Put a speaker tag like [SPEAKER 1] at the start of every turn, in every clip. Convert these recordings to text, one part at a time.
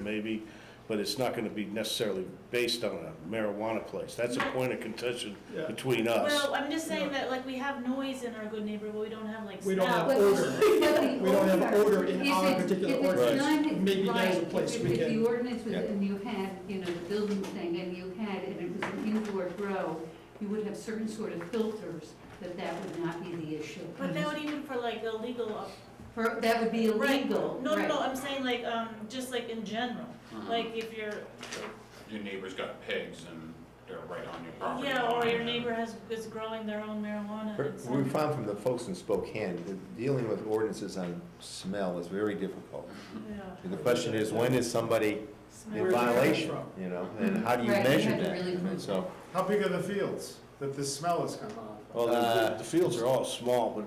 [SPEAKER 1] maybe, but it's not gonna be necessarily based on a marijuana place. That's a point of contention
[SPEAKER 2] Yeah.
[SPEAKER 1] between us.
[SPEAKER 3] Well, I'm just saying that, like, we don't have noise in our good neighbor, but we don't have like
[SPEAKER 2] We don't have
[SPEAKER 3] smell.
[SPEAKER 2] odor. We don't have odor in
[SPEAKER 4] If
[SPEAKER 2] our
[SPEAKER 4] it-
[SPEAKER 2] particular
[SPEAKER 4] If
[SPEAKER 2] ordinance.
[SPEAKER 4] it's not,
[SPEAKER 2] Maybe
[SPEAKER 4] it's
[SPEAKER 2] there's a
[SPEAKER 4] right,
[SPEAKER 2] place
[SPEAKER 4] if,
[SPEAKER 2] we
[SPEAKER 4] if
[SPEAKER 2] can-
[SPEAKER 4] the ordinance was,
[SPEAKER 2] Yeah.
[SPEAKER 4] and you had, you know, the building thing, and you had, and it was an indoor grow, you would have certain sort of filters, that that would not be the issue.
[SPEAKER 3] But that would even for like illegal. uh,
[SPEAKER 4] For, that would be
[SPEAKER 3] right.
[SPEAKER 4] illegal,
[SPEAKER 3] No, no, no,
[SPEAKER 4] right. Uh-huh.
[SPEAKER 3] I'm saying like, um, just like in general, like if you're,
[SPEAKER 5] Your neighbor's got pigs and they're right on your property.
[SPEAKER 3] yeah, or
[SPEAKER 5] line
[SPEAKER 3] your
[SPEAKER 5] and-
[SPEAKER 3] neighbor has, is growing their own marijuana. um, and
[SPEAKER 6] We
[SPEAKER 3] some-
[SPEAKER 6] found from the folks in Spokane, that dealing with ordinances on smell is very difficult.
[SPEAKER 3] Yeah,
[SPEAKER 6] And The question is, when is somebody
[SPEAKER 3] smell.
[SPEAKER 6] in
[SPEAKER 2] Where's it coming
[SPEAKER 6] violation,
[SPEAKER 2] from?
[SPEAKER 6] you know, and how do you
[SPEAKER 4] Right, you
[SPEAKER 6] measure
[SPEAKER 4] have to
[SPEAKER 6] that?
[SPEAKER 4] really
[SPEAKER 6] I mean,
[SPEAKER 4] prove
[SPEAKER 6] So,
[SPEAKER 2] How big are the fields that the smell is coming off? of?
[SPEAKER 1] Well, the- the,
[SPEAKER 6] Uh,
[SPEAKER 1] the fields are all small, but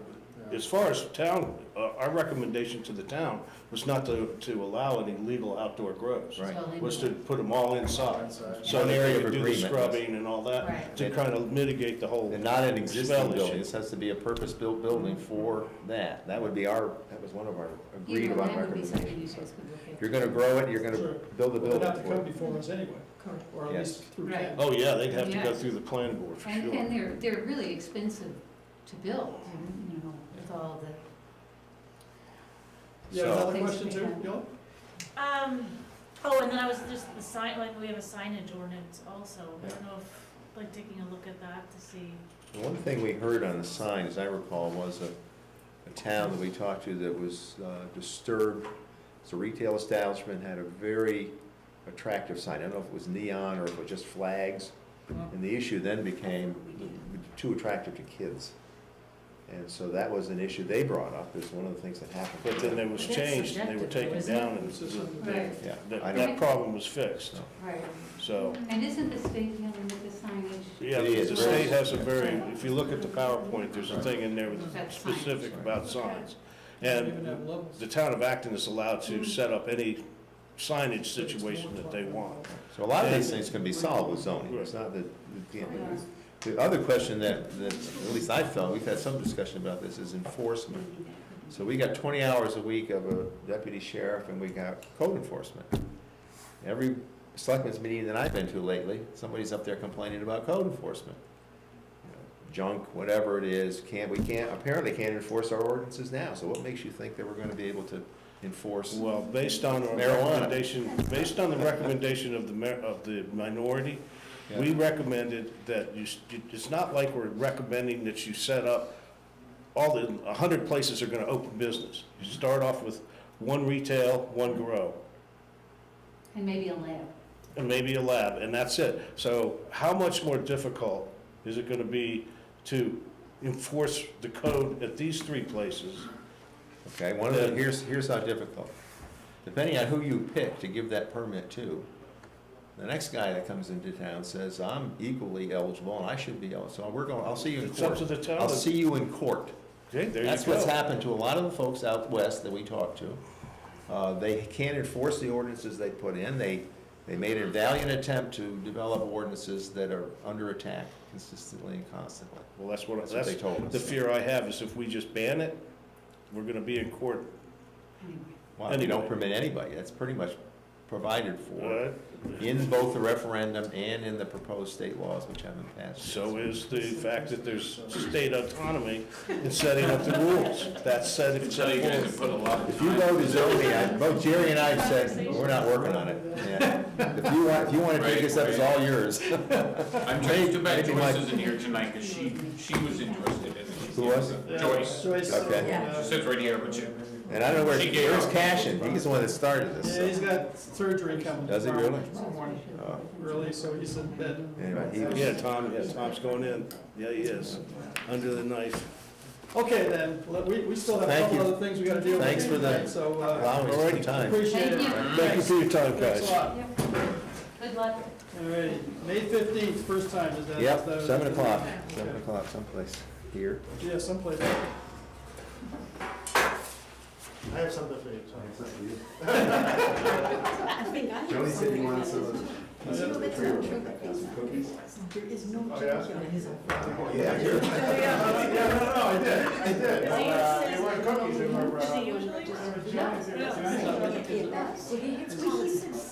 [SPEAKER 2] Yeah.
[SPEAKER 1] as far as town, uh, our recommendation to the town was not to, to allow any legal outdoor grows.
[SPEAKER 6] Right.
[SPEAKER 4] It's all
[SPEAKER 1] Was to
[SPEAKER 4] indoor.
[SPEAKER 1] put them all
[SPEAKER 2] Oh,
[SPEAKER 1] inside.
[SPEAKER 2] Inside.
[SPEAKER 1] So
[SPEAKER 6] One
[SPEAKER 1] they
[SPEAKER 6] area of
[SPEAKER 1] could do the
[SPEAKER 6] agreement.
[SPEAKER 1] scrubbing and all that,
[SPEAKER 4] Right.
[SPEAKER 1] to kind of mitigate the whole.
[SPEAKER 6] and not an
[SPEAKER 1] Smell
[SPEAKER 6] existing
[SPEAKER 1] issue.
[SPEAKER 6] building, this has to be a purpose-built building for that. That would be our, that was one of our agreed
[SPEAKER 4] You know,
[SPEAKER 6] upon
[SPEAKER 4] that would be something you
[SPEAKER 6] recommendations.
[SPEAKER 4] guys could look at.
[SPEAKER 6] You're gonna grow it, you're gonna
[SPEAKER 2] Sure. Well,
[SPEAKER 6] build a
[SPEAKER 2] They'd
[SPEAKER 6] building
[SPEAKER 2] have to
[SPEAKER 6] for
[SPEAKER 2] come
[SPEAKER 6] it.
[SPEAKER 2] before us anyway,
[SPEAKER 4] Correct.
[SPEAKER 2] or at
[SPEAKER 6] Yes.
[SPEAKER 2] least through
[SPEAKER 4] Right.
[SPEAKER 2] Ken.
[SPEAKER 1] Oh, yeah, they'd have to go
[SPEAKER 4] Yes.
[SPEAKER 1] through the planning board, for
[SPEAKER 4] And,
[SPEAKER 1] sure.
[SPEAKER 4] and they're, they're really expensive to build, and, you know, with all the.
[SPEAKER 2] You have
[SPEAKER 6] So-
[SPEAKER 2] another
[SPEAKER 4] Things
[SPEAKER 2] question
[SPEAKER 4] we
[SPEAKER 2] too,
[SPEAKER 4] have.
[SPEAKER 2] Gil?
[SPEAKER 3] Um, oh, and then I was just, the sign, like, we have a signage ordinance also, I don't know if, like, taking a look at that to see.
[SPEAKER 6] The One thing we heard on the sign, as I recall, was a, a town that we talked to that was uh, disturbed. It's a retail establishment, had a very attractive sign. I don't know if it was neon or if it was just flags. And the issue then became too attractive to kids. And so that was an issue they brought up, is one of the things that happened.
[SPEAKER 1] But then it was
[SPEAKER 4] That's
[SPEAKER 1] changed, and they were
[SPEAKER 4] subjective, though,
[SPEAKER 1] taken
[SPEAKER 4] isn't it?
[SPEAKER 1] down, and
[SPEAKER 2] This is
[SPEAKER 1] the-
[SPEAKER 2] something-
[SPEAKER 4] Right,
[SPEAKER 6] Yeah. I
[SPEAKER 1] that,
[SPEAKER 6] don't-
[SPEAKER 1] that problem was fixed,
[SPEAKER 6] No.
[SPEAKER 4] right.
[SPEAKER 1] so.
[SPEAKER 4] And isn't the state dealing with the signage?
[SPEAKER 1] Yeah,
[SPEAKER 6] It is
[SPEAKER 1] the
[SPEAKER 6] very-
[SPEAKER 1] state has a very, if you look at the PowerPoint, there's a thing in there
[SPEAKER 4] About
[SPEAKER 1] that's
[SPEAKER 4] signs.
[SPEAKER 1] specific about signs.
[SPEAKER 2] They even
[SPEAKER 1] And
[SPEAKER 2] have levels.
[SPEAKER 1] the town of Acton is allowed to set up any signage situation that they want.
[SPEAKER 6] So a lot of these things can be solved with zoning, it's not that, you can't do this. The other question that, that, at least I felt, we've had some discussion about this, is enforcement. So we got twenty hours a week of a deputy sheriff, and we got code enforcement. Every selectmen's meeting that I've been to lately, somebody's up there complaining about code enforcement. You know, Junk, whatever it is, can't, we can't, apparently can't enforce our ordinances now, so what makes you think that we're gonna be able to enforce?
[SPEAKER 1] Well, based on our
[SPEAKER 6] Marijuana.
[SPEAKER 1] recommendation, based on the recommendation of the, mar- of the minority, we
[SPEAKER 6] Yeah.
[SPEAKER 1] recommended that you, s- you- it's not like we're recommending that you set up, all the, a hundred places are gonna open business. You start off with one retail, one grow,
[SPEAKER 4] And maybe a lab.
[SPEAKER 1] and maybe a lab, and that's it. So how much more difficult is it gonna be to enforce the code at these three places?
[SPEAKER 6] Okay, one of the, here's, here's how difficult. Depending on who you pick to give that permit to, the next guy that comes into town says, I'm equally eligible and I should be eligible, so we're going, I'll see you in
[SPEAKER 1] It's up
[SPEAKER 6] court.
[SPEAKER 1] to the town.
[SPEAKER 6] I'll see you in court.
[SPEAKER 1] Okay, there you
[SPEAKER 6] That's what's
[SPEAKER 1] go.
[SPEAKER 6] happened to a lot of the folks out west that we talked to. Uh, they can't enforce the ordinances they put in. They, they made a valiant attempt to develop ordinances that are under attack consistently and constantly.
[SPEAKER 1] Well, that's what,
[SPEAKER 6] That's what
[SPEAKER 1] that's
[SPEAKER 6] they told us.
[SPEAKER 1] the fear I have, is if we just ban it, we're gonna be in court.
[SPEAKER 4] Anyway.
[SPEAKER 6] Well, you
[SPEAKER 1] Anyway.
[SPEAKER 6] don't permit anybody. That's pretty much provided for.
[SPEAKER 1] Uh,
[SPEAKER 6] in both the referendum and in the proposed state laws which haven't passed.
[SPEAKER 1] So is the fact that there's state autonomy in setting up the rules. That's setting.
[SPEAKER 5] Until you guys have put a lot of
[SPEAKER 6] If you
[SPEAKER 5] time.
[SPEAKER 6] go to zoning, I- both Jerry and I have said, we're not working on it. Yeah. If you want, if you want to take this up, it's all yours.
[SPEAKER 5] I'm trying, too bad
[SPEAKER 6] Maybe
[SPEAKER 5] Joyce
[SPEAKER 6] like-
[SPEAKER 5] isn't here tonight, because she, she was interested in it.
[SPEAKER 6] Who was?
[SPEAKER 5] Joyce.
[SPEAKER 2] Joyce.
[SPEAKER 6] Okay.
[SPEAKER 2] uh,
[SPEAKER 5] She sits right here, but you,
[SPEAKER 6] And I don't know where,
[SPEAKER 5] She gave
[SPEAKER 6] where's
[SPEAKER 5] up.
[SPEAKER 6] Cashin? He's the one that started this.
[SPEAKER 2] Yeah, he's
[SPEAKER 6] so.
[SPEAKER 2] got surgery coming.
[SPEAKER 6] Does he
[SPEAKER 2] tomorrow-
[SPEAKER 6] really?
[SPEAKER 2] tomorrow
[SPEAKER 6] Oh.
[SPEAKER 2] Early, so he's in bed.
[SPEAKER 6] Anyway, he was-
[SPEAKER 1] Yeah, Tom, yeah, Tom's going in. Yeah, he is, under the knife.
[SPEAKER 2] Okay, then, let- we, we still have a
[SPEAKER 6] Thank
[SPEAKER 2] couple
[SPEAKER 6] you.
[SPEAKER 2] other things we gotta deal with.
[SPEAKER 6] Thanks for the-
[SPEAKER 2] tonight, So, uh,
[SPEAKER 6] allowing us some time.
[SPEAKER 2] appreciate it.
[SPEAKER 4] Thank you.
[SPEAKER 1] Thank you for your time,
[SPEAKER 2] Thanks
[SPEAKER 1] guys.
[SPEAKER 2] a lot.
[SPEAKER 4] Yep. Good luck.
[SPEAKER 2] All righty, May fifteenth, first time, is that? is
[SPEAKER 6] Yep,
[SPEAKER 2] that-
[SPEAKER 6] seven o'clock, seven o'clock someplace here.
[SPEAKER 2] Yeah, someplace.
[SPEAKER 7] I have something for you, sorry.
[SPEAKER 8] I think I have
[SPEAKER 7] Joni said you
[SPEAKER 8] something
[SPEAKER 7] wanted
[SPEAKER 8] about
[SPEAKER 7] some
[SPEAKER 8] it.
[SPEAKER 7] of
[SPEAKER 8] You know,
[SPEAKER 7] the
[SPEAKER 8] that's
[SPEAKER 7] three
[SPEAKER 8] not
[SPEAKER 7] of
[SPEAKER 8] true.
[SPEAKER 7] them, like, got some cookies.
[SPEAKER 8] There is no
[SPEAKER 7] Oh, yeah?
[SPEAKER 8] joke on his own.
[SPEAKER 6] Yeah, sure.
[SPEAKER 7] Yeah, no, no, I did, I did.
[SPEAKER 3] Is he
[SPEAKER 7] Uh,
[SPEAKER 3] usually-
[SPEAKER 7] They weren't cookies, they were.
[SPEAKER 3] Is
[SPEAKER 7] uh,
[SPEAKER 3] he usually?
[SPEAKER 8] Yeah,
[SPEAKER 3] Yeah.
[SPEAKER 8] Well, he hits me, he says,